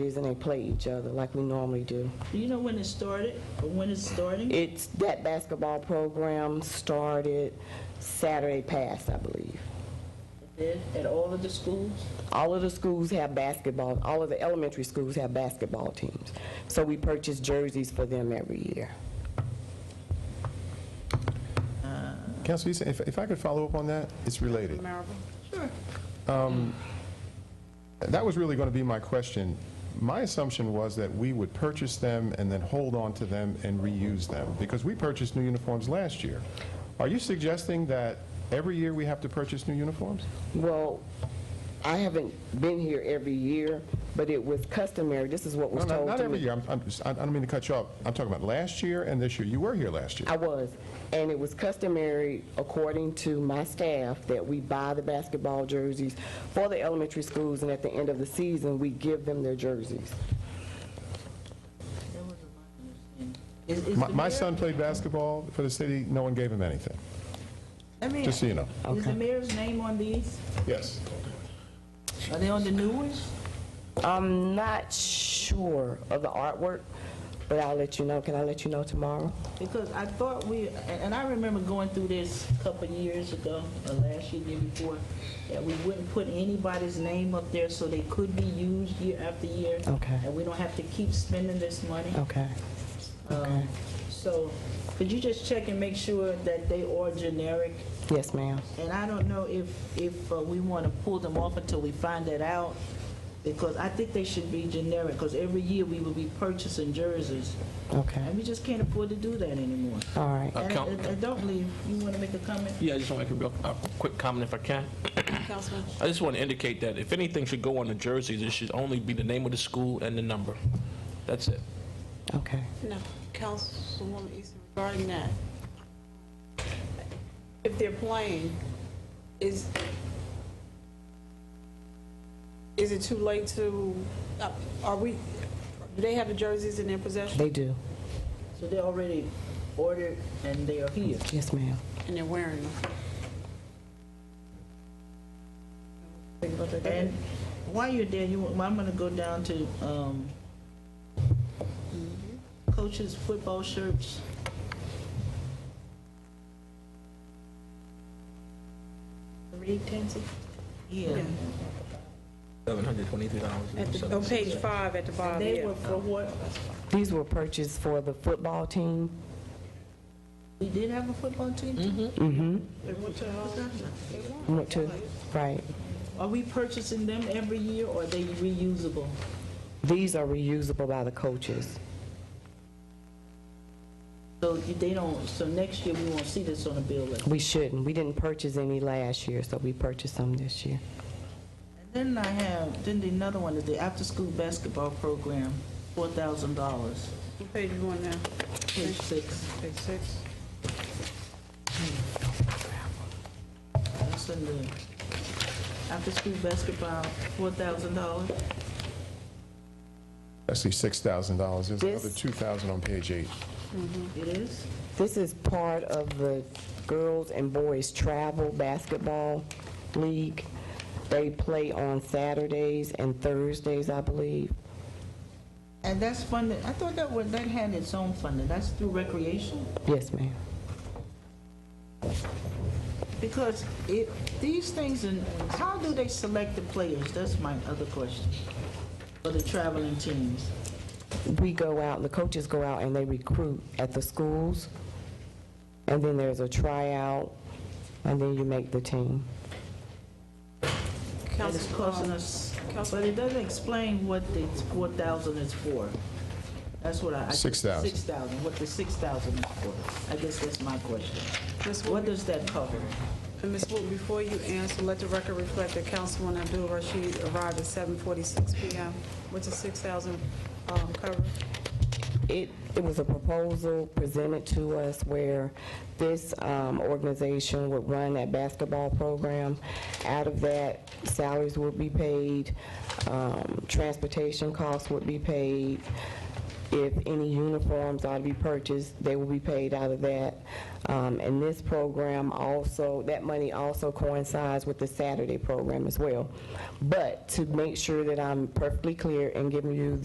and they play each other like we normally do. Do you know when it started, or when it's starting? It's, that basketball program started Saturday past, I believe. Did At all of the schools? All of the schools have basketball, all of the elementary schools have basketball teams. So we purchase jerseys for them every year. Council, Eason, if, if I could follow up on that, it's related. Um, That was really going to be my question. My assumption was that we would purchase them and then hold on to them and reuse them, because we purchased new uniforms last year. Are you suggesting that every year we have to purchase new uniforms? Well, I haven't been here every year, but it was customary, this is what No, was not- told Not to every me. year, I'm- I'm just- I I don't mean to cut you off. I'm talking about last year and this year. You were here last year. I was, and it was customary, according to my staff, that we buy the basketball jerseys for the elementary schools, and at the end of the season, we give them their jerseys. Is- is My- the My mayor- son played basketball for the city, no one gave him anything, Let me just so you know. ask, Is the mayor's name on these? Yes. Are they on the new ones? I'm not sure of the artwork, but I'll let you know. Can I let you know tomorrow? Because I thought we, and- and I remember going through this a couple of years ago, or last year, year before, that we wouldn't put anybody's name up there so they could be used year after year. Okay. And we don't have to keep spending this money. Okay. Um, So, could you just check and make sure that they are generic? Yes, ma'am. And I don't know if, if uh, we want to pull them off until we find that out, because I think they should be generic, because every year we will be purchasing jerseys, Okay. and we just can't afford to do that anymore. All right. And Count- and- and don't leave, you want to make a comment? Yeah, I just want to make a real, a quick comment if I can. Councilman, I just want to indicate that if anything should go on the jerseys, it should only be the name of the school and the number. That's it. Okay. no, Councilwoman Easton, regarding that, if they're playing, is, is it too late to, uh, are we, do they have the jerseys in their possession They do. So they already ordered and they are here. Yes, ma'am. and they're wearing them? And while you're there, you, I'm gonna go down to, um, coaches' football shirts. Read Tansy? Yeah. At the, on page five at the bottom, They yeah. were for what? These were purchased for the football team. We did have a football team? Mm-hmm. Went to, right. Are we purchasing them every year or are they reusable? These are reusable by the coaches. So you- they don't, so next year we won't see this on the bill list. We shouldn't. We didn't purchase any last year, so we purchased some this year. Then I have, then the another one is the after-school basketball program, four thousand dollars, What page you on now? page six. Page six. That's in the after-school basketball, four thousand dollars. Actually, $6,000. There's This- another 2,000 on page eight. It is? This is part of the girls and boys travel basketball league. They play on Saturdays and Thursdays, I believe. And that's funded, I thought that was, that had its own funding, that's through recreation? Yes, ma'am. Because it, these things, and how do they select the players? That's my other question. For the traveling teams. We go out, the coaches go out and they recruit at the schools. And then there's a tryout, and then you make the team. And it's costing Council, us, Council- but it doesn't explain what the four thousand is for. That's what I. I- 6,000. Six thousand, what the six thousand is for. I guess that's my question. Ms. What Wooten, does that cover? And Ms. Wooten, before you answer, let the record reflect that Councilwoman Abdul Rashid arrived at 7:46 PM, which is 6,000 um, cover. It, it was a proposal presented to us where this um, organization would run that basketball program. Out of that, salaries would be paid, um, transportation costs would be paid, If any uniforms are to be purchased, they will be paid out of that. Um, And this program also, that money also coincides with the Saturday program as well. But to make sure that I'm perfectly clear and giving you